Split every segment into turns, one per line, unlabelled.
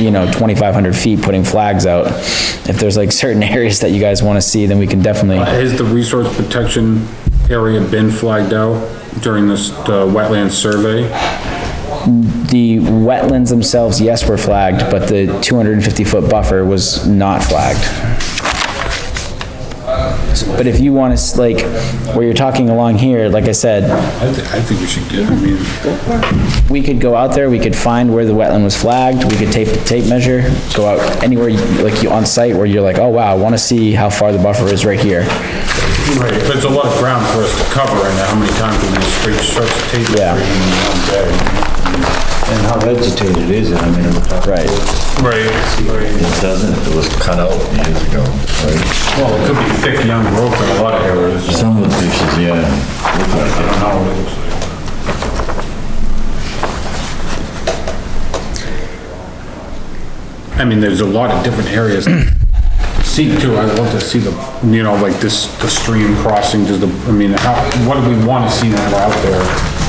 you know, 2,500 feet putting flags out. If there's like certain areas that you guys want to see, then we can definitely,
Has the resource protection area been flagged out during this, the wetland survey?
the wetlands themselves, yes, were flagged, but the 250-foot buffer was not flagged. But if you want to, like, where you're talking along here, like I said,
I, thi- I think we should get, I mean,
we could go out there, we could find where the wetland was flagged, we could tape, tape measure, go out anywhere, you- like you on site where you're like, oh wow, I wanna see how far the buffer is right here.
right, there's a lot of ground for us to cover and how many times we just reach such tape measure
Yeah.
in one day.
And how vegetated is it? I mean, it
Right.
Right,
doesn't, it was cut out years ago, right?
well, it could be thick young growth in a lot of areas.
Some of the dishes, yeah, look like
I don't know what it looks like. I mean, there's a lot of different areas. See too, I'd love to see the, you know, like this, the stream crossing, does the, I mean, how, what do we want to see when we're out there?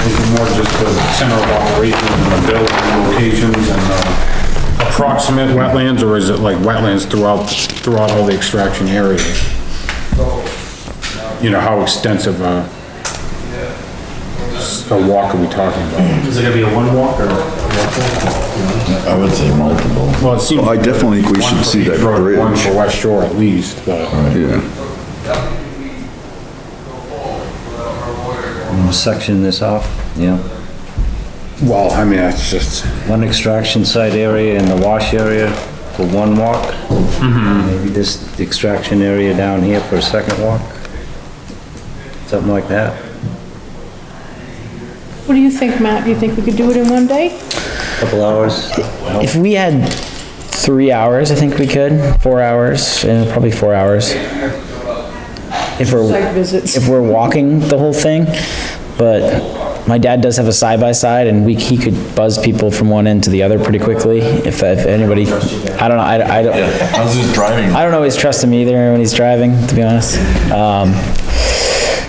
Is it more just the center of operations and the building locations and the approximate wetlands? Or is it like wetlands throughout, throughout all the extraction areas? You know, how extensive uh, a a walk are we talking about?
Is it gonna be a one walk or?
it. I would say multiple.
Well, it seems.
I definitely think we should see that
One for each road, One
bridge.
for West Shore at least, but
Yeah,
We'll Section this off, yeah.
well, I mean, that's just,
Um,
One extraction site area and the wash area for one walk. Maybe this extraction area down here for a second walk. Something like that.
What do you think, Matt? Do you think we could do it in one day?
Couple hours.
If we had three hours, I think we could, four hours, eh, probably four hours. If
Site
we're,
visits.
if we're walking the whole thing, but my dad does have a side-by-side and we, he could buzz people from one end to the other pretty quickly if, if anybody, I don't know, I, I don't.
I was just driving.
I don't always trust him either when he's driving, to be honest. Um,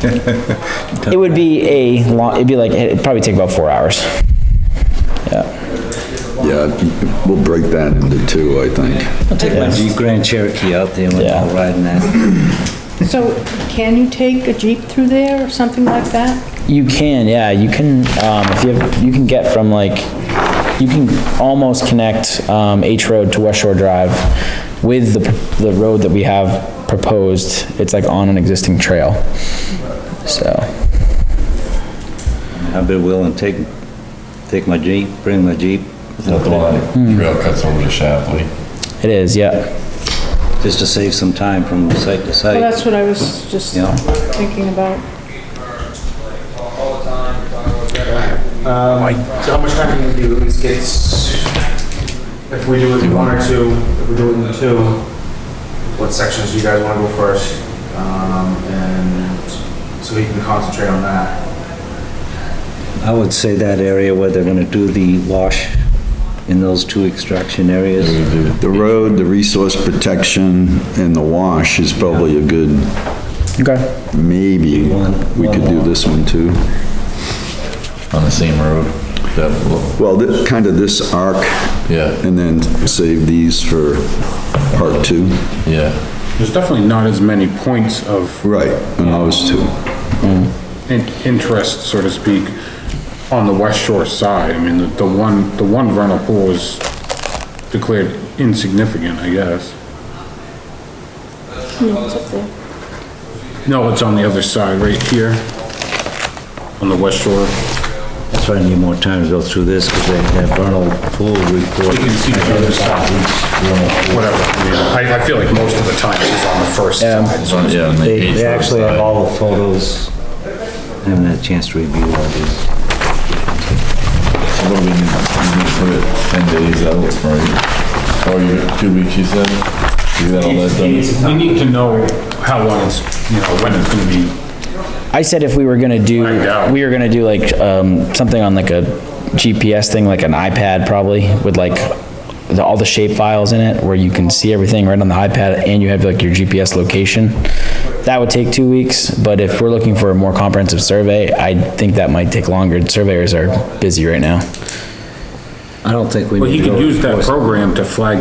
it would be a long, it'd be like, it'd probably take about four hours.
yeah, we'll break that into two, I think.
Jeep Grand Cherokee out there, we're all
Yeah.
riding that.
So can you take a Jeep through there or something like that?
You can, yeah, you can, um, if you have, you can get from like, you can almost connect, um, H Road to West Shore Drive with the, the road that we have proposed. It's like on an existing trail. So.
I'd be willing to take, take my Jeep, bring my Jeep.
That's why the trail cuts over to Shapley.
It is, yeah.
Just to save some time from site to
Well,
site.
that's what I was just
Yeah.
thinking about.
Um, so how much time do you do, this gets, if we do it in one or two, if we do it in two, what sections do you guys wanna go first? Um, and so we can concentrate on that.
I would say that area where they're gonna do the wash in those two extraction areas.
The road, the resource protection, and the wash is probably a good,
Okay.
maybe, we could do this one too.
On the same road. That,
Well, thi- kind of this arc,
yeah,
and then save these for part two.
yeah.
there's definitely not as many points of
Right, and those two.
in- interest, so to speak, on the West Shore side. I mean, the, the one, the one vernal pool is declared insignificant, I guess.
No, it's up there.
No, it's on the other side, right here, on the West Shore.
That's why I need more time to go through this, because they have vernal pool report.
You can see the other side, whatever. I mean, I, I feel like most of the time it's on the first side. so it's-
Yeah, and
They,
page
they
for the
actually
side.
have all the photos. I haven't had a chance to review all these.
What do we need, we need to put it ten days out, right? Or you, two weeks, you said? You got all that done?
We need to know how long it's, you know, when it's gonna be
I said if we were gonna do,
Find out.
we were gonna do like, um, something on like a GPS thing, like an iPad probably, with like the, all the shape files in it, where you can see everything right on the iPad, and you have like your GPS location. That would take two weeks, but if we're looking for a more comprehensive survey, I think that might take longer. Surveyors are busy right now.
I don't think we
Well,
need
he
to go.
could use that
enforce it.
program to flag